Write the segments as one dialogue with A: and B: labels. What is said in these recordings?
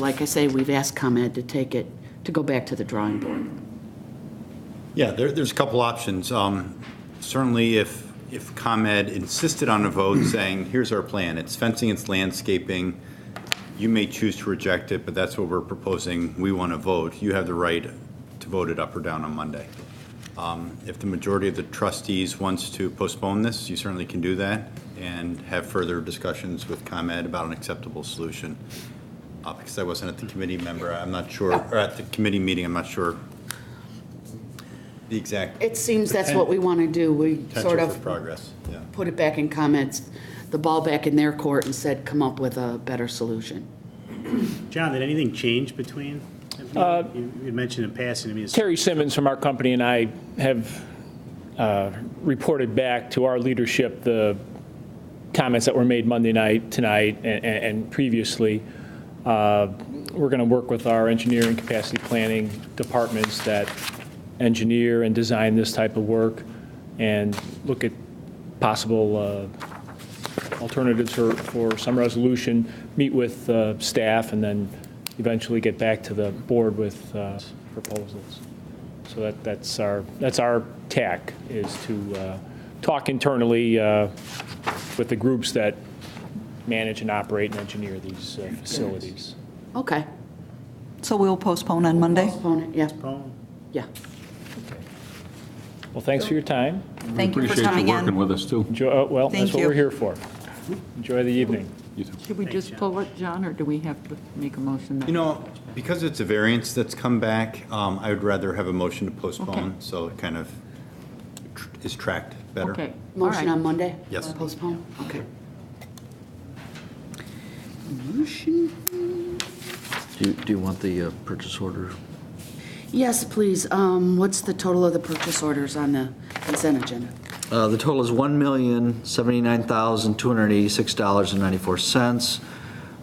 A: Like I say, we've asked ComEd to take it, to go back to the drawing board.
B: Yeah, there, there's a couple options. Um, Certainly, if, if ComEd insisted on a vote saying, here's our plan, it's fencing, it's landscaping, you may choose to reject it, but that's what we're proposing, we want to vote, you have the right to vote it up or down on Monday. Um, If the majority of the trustees wants to postpone this, you certainly can do that, and have further discussions with ComEd about an acceptable solution. Uh, Because I wasn't at the committee member, I'm not sure, or at the committee meeting, I'm not sure the exact
A: It seems that's what we want to do. We sort
B: potential for
A: of
B: progress, yeah.
A: put it back in comments, the ball back in their court and said, come up with a better solution.
C: John, did anything change between?
A: Uh,
C: You you had mentioned in passing to me. it's-
D: Terry Simmons from our company and I have uh, reported back to our leadership the comments that were made Monday night, tonight, a- a- and previously. Uh, We're going to work with our engineering capacity planning departments that engineer and design this type of work and look at possible uh, alternatives for, for some resolution, meet with uh, staff, and then eventually get back to the board with uh, proposals. So that, that's our, that's our tack, is to uh, talk internally uh, with the groups that manage and operate and engineer these uh, facilities.
A: Okay.
E: So we'll postpone on Monday?
A: Postpone it, yeah,
C: Oh,
A: yeah.
D: Well, thanks for your time.
E: Thank you for coming
F: Appreciate you working
E: in.
F: with us, too.
D: Enjoy, oh, well, that's
E: Thank
D: what
E: you.
D: we're here for. Enjoy the evening.
F: You too.
G: Should we just pull it, John, or do we have to make a motion? that-
B: You know, because it's a variance that's come back, um, I would rather have a motion to postpone, so it kind of tr- is tracked better.
G: Okay, all
A: Motion on
G: right.
A: Monday?
B: Yes.
A: Postpone? Okay. Motion?
H: Do you, do you want the uh, purchase order?
A: Yes, please. Um, What's the total of the purchase orders on the consent agenda?
H: Uh, The total is $1,079,286.94.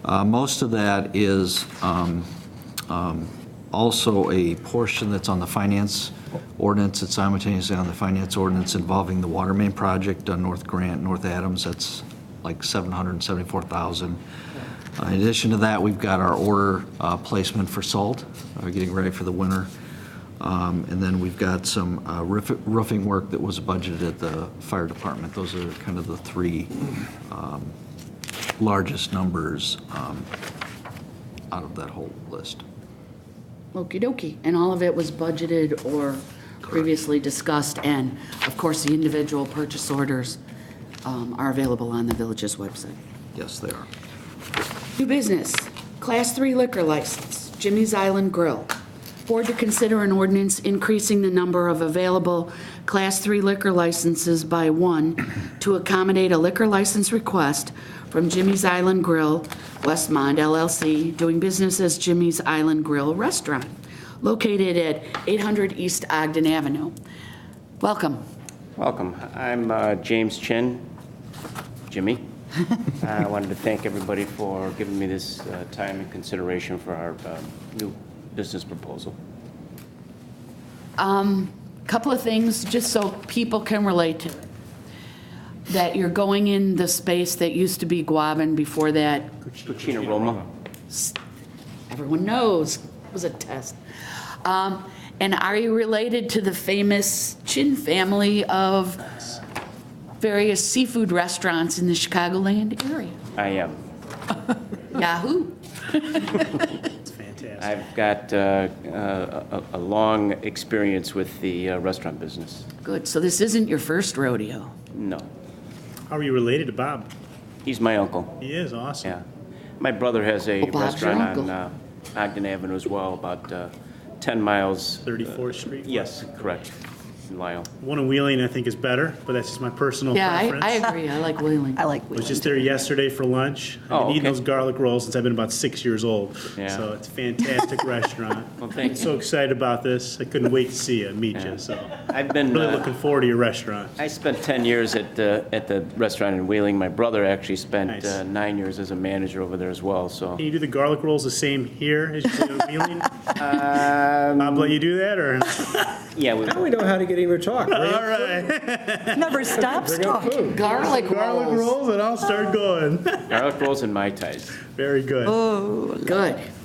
H: Uh, Most of that is um, um, also a portion that's on the finance ordinance, it's simultaneously on the finance ordinance involving the water main project on North Grant, North Adams, that's like 774000 Uh, In addition to that, we've got our order uh, placement for salt, uh, getting ready for the winter. Um, And then we've got some uh, roof- roofing work that was budgeted at the fire department. Those are kind of the three um, largest numbers um, out of that whole list.
A: Okey-dokey. And all of it was budgeted or previously discussed, and of course, the individual purchase orders um, are available on the village's website.
H: Yes, they are.
A: New business, Class 3 liquor license, Jimmy's Island Grill. Board to consider an ordinance increasing the number of available Class 3 liquor licenses by one to accommodate a liquor license request from Jimmy's Island Grill, Westmont LLC, doing business as Jimmy's Island Grill Restaurant, located at 800 East Ogden Avenue. Welcome.
I: Welcome. I'm uh, James Chin, Jimmy. I wanted to thank everybody for giving me this uh, time and consideration for our uh, new business proposal.
A: couple of things, just so people can relate to it. That you're going in the space that used to be Guavin before that,
I: Cucina Roma.
A: everyone knows, it was a test. Um, And are you related to the famous Chin family of various seafood restaurants in the Chicagoland area?
I: I am.
A: Yahoo!
C: it's fantastic.
I: I've got uh, uh, a a long experience with the uh, restaurant business.
A: Good, so this isn't your first rodeo.
I: No,
C: How are you related to Bob?
I: he's my uncle,
C: He is awesome.
I: yeah. My brother has a
A: Oh, Bob's your
I: restaurant on
A: uncle.
I: uh, Ogden Avenue as well, about uh, 10 miles. uh,
C: 34th Street?
I: Yes, correct, in Lyle.
C: One in Wheeling, I think, is better, but that's just my personal
A: Yeah, I,
C: preference.
A: I agree, I like Wheeling.
E: I like
C: I was
E: Wheeling.
C: just there yesterday for lunch. I've
I: Oh,
C: been eating
I: okay.
C: those garlic rolls since I've been about six years old.
I: Yeah.
C: So it's a fantastic restaurant.
I: Well, thank
C: I'm
I: you.
C: so excited about this. I couldn't wait to see you, meet you, so.
I: I've been,
C: Really
I: uh,
C: looking forward to your restaurant.
I: I spent 10 years at the, at the restaurant in Wheeling. My brother actually spent
C: Nice.
I: uh, nine years as a manager over there as well, so.
C: Can you do the garlic rolls the same here as you do in Wheeling?
I: Um,
C: Bob let you do that, or?
I: Yeah, we-
J: Now we know how to get him to talk.
C: All right.
E: Never stops talking.
A: Garlic
C: Garlic
A: rolls,
C: rolls, and I'll start going. Oh,
I: garlic rolls and Mai Tais.
E: Oh.
C: Very good.
A: good.